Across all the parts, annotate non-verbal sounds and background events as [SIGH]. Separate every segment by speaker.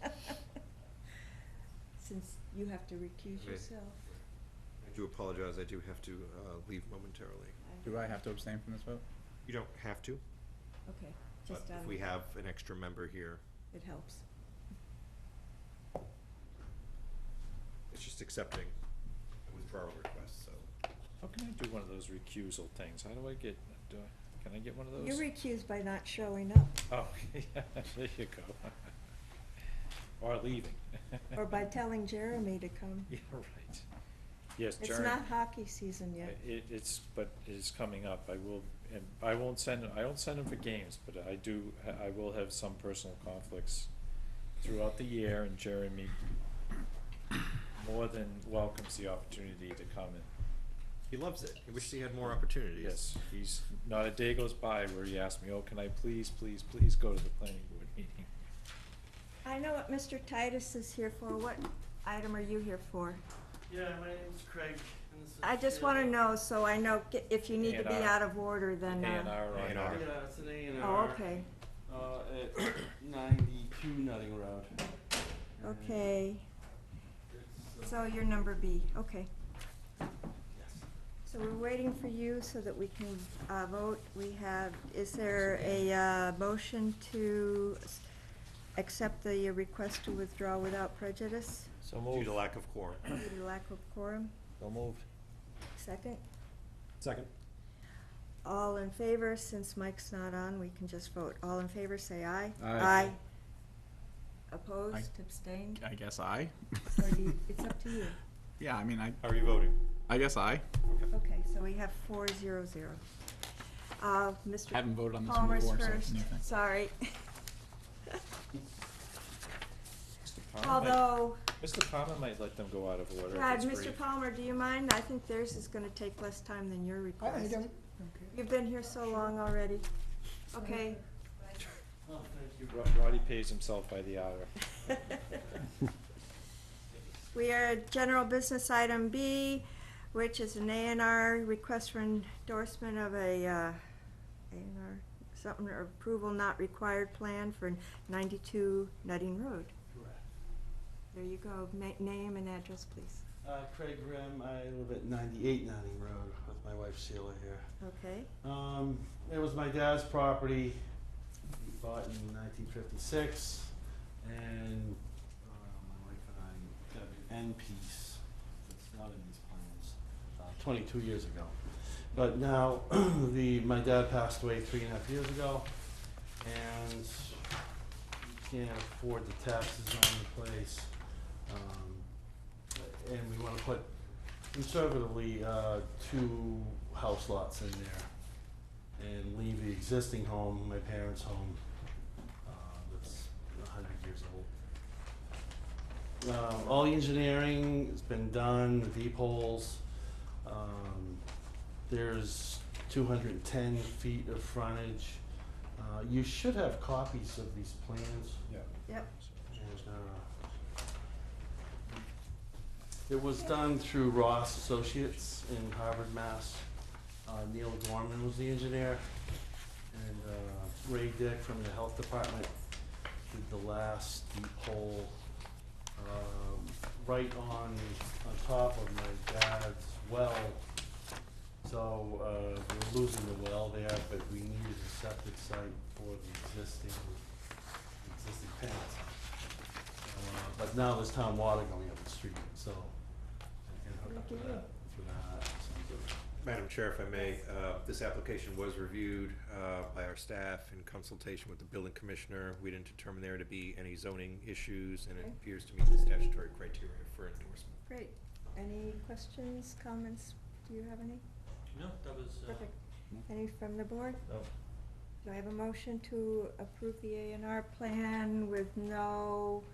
Speaker 1: [LAUGHS] since you have to recuse
Speaker 2: Okay.
Speaker 1: yourself.
Speaker 2: I do apologize, I do have to uh, leave momentarily.
Speaker 3: Do I have to abstain from this vote?
Speaker 2: You don't have to,
Speaker 1: Okay,
Speaker 2: but
Speaker 1: just um, out
Speaker 2: if
Speaker 1: of,
Speaker 2: we have an extra member here,
Speaker 1: it helps.
Speaker 2: it's just accepting withdrawal requests, so.
Speaker 4: How can I do one of those recusal things? How do I get, do I, can I get one of those?
Speaker 1: You're recused by not showing up,
Speaker 4: Oh, [LAUGHS] yeah, there you go. [LAUGHS] Or leaving.
Speaker 1: or
Speaker 4: [LAUGHS]
Speaker 1: by telling Jeremy to come.
Speaker 4: Yeah, right. Yes,
Speaker 1: It's
Speaker 4: Jeremy.
Speaker 1: not hockey season yet.
Speaker 4: I- It, it's, but it's coming up. I will, and I won't send, I don't send them for games, but I do, I will have some personal conflicts throughout the year, and Jeremy more than welcomes the opportunity to come and
Speaker 2: He loves it, he wishes he had more opportunities.
Speaker 4: Yes, he's, not a day goes by where he asks me, oh, can I please, please, please go to the planning board meeting?
Speaker 1: I know what Mr. Titus is here for. What item are you here for?
Speaker 5: Yeah, my name's Craig. And this is
Speaker 1: I just want to
Speaker 5: yeah.
Speaker 1: know, so I know g- if you need to be
Speaker 4: A&R.
Speaker 1: out of order, [LAUGHS] then,
Speaker 4: A and
Speaker 1: uh,
Speaker 4: R on
Speaker 2: A&R.
Speaker 4: our-
Speaker 5: Yeah, it's an A and
Speaker 1: oh,
Speaker 5: R.
Speaker 1: okay,
Speaker 5: Uh, at [COUGHS] 92 Nutting Road. And
Speaker 1: okay.
Speaker 5: it's,
Speaker 1: So
Speaker 5: uh,
Speaker 1: you're number B, okay.
Speaker 5: yes.
Speaker 1: So we're waiting for you so that we can uh, vote. We have, is there a uh, motion to s- accept the request to withdraw without prejudice
Speaker 6: So
Speaker 2: Due
Speaker 6: moved.
Speaker 2: to lack of quorum.
Speaker 1: due to lack of quorum?
Speaker 6: So moved.
Speaker 1: Second?
Speaker 6: Second.
Speaker 1: All in favor, since Mike's not on, we can just vote. All in favor, say aye.
Speaker 3: Aye.
Speaker 1: Opposed, abstained?
Speaker 3: I guess I.
Speaker 1: Or do you- it's up to you.
Speaker 3: [LAUGHS] Yeah, I mean, I,
Speaker 2: How are you voting?
Speaker 3: I guess I.
Speaker 1: Okay, so we have four zero zero. Uh, Mr.
Speaker 3: Haven't voted on this one
Speaker 1: Palmer's
Speaker 3: before, so it's
Speaker 1: first,
Speaker 3: a new thing.
Speaker 1: sorry.
Speaker 4: Mr. Palmer might-
Speaker 1: Although,
Speaker 4: Mr. Palmer might let them go out of order
Speaker 1: Brad,
Speaker 4: if it's
Speaker 1: Mr.
Speaker 4: brief.
Speaker 1: Palmer, do you mind? I think theirs is gonna take less time than your request. I don't. You've been here so long already. Okay.
Speaker 5: Oh, thank you.
Speaker 4: Ro- Roddy pays himself by the hour.
Speaker 1: We are at general business item B, which is an A and R request for endorsement of a, uh, A and R, something, or approval not required plan for ninety-two Nutting Road.
Speaker 5: Correct.
Speaker 1: There you go. Ma- name and address, please.
Speaker 5: Uh, Craig Grimm. I live at 98 Nutting Road with my wife Sheila here.
Speaker 1: Okay,
Speaker 5: Um, it was my dad's property. He bought in 1956, and uh, my wife and I got an end piece that's not in these plans. Uh, 22 years ago, but now [CLEARS THROAT] the my dad passed away three and a half years ago, and we can't afford the taxes on the place. Um, and we want to put conservatively uh, two house lots in there and leave the existing home, my parents' home, uh, that's a hundred years old. Um, all the engineering has been done, the deep holes. Um, there's two hundred and ten feet of frontage. Uh, you should have copies of these plans.
Speaker 4: Yeah.
Speaker 1: yep.
Speaker 5: And, uh, It was done through Ross Associates in Harvard, Mass. Uh, Neil Gorman was the engineer, and uh, Ray Dick from the Health Department did the last deep hole um, right on, on top of my dad's well. So uh, we're losing the well there, but we needed a septic site for the existing, existing plant. Uh, But now there's town water going up the street, so I can hook up to that through that. so-
Speaker 2: Madam Chair, if I may, uh, this application was reviewed uh, by our staff in consultation with the building commissioner. We didn't determine there to be any zoning issues, and it
Speaker 1: Okay.
Speaker 2: appears to meet the statutory criteria for endorsement.
Speaker 1: Great. Any questions, comments? Do you have any?
Speaker 5: No, that was. uh,
Speaker 1: Perfect. Any from the board?
Speaker 5: no.
Speaker 1: Do I have a motion to approve the A and R plan with no,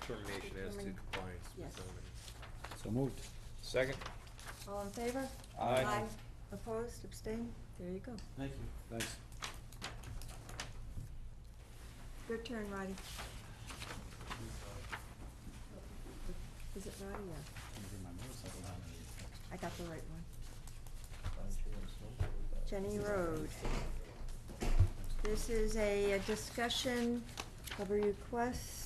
Speaker 2: Determination as to
Speaker 1: Determine-
Speaker 2: compliance with
Speaker 1: yes.
Speaker 2: zoning.
Speaker 6: So moved.
Speaker 4: Second?
Speaker 1: all in favor?
Speaker 4: Aye.
Speaker 1: Opposed, abstained? There you go.
Speaker 5: Thank you.
Speaker 6: Thanks.
Speaker 1: Your turn, Roddy. Is it Roddy? Yeah, I got the right one. Jenny Road. This is a a discussion of a request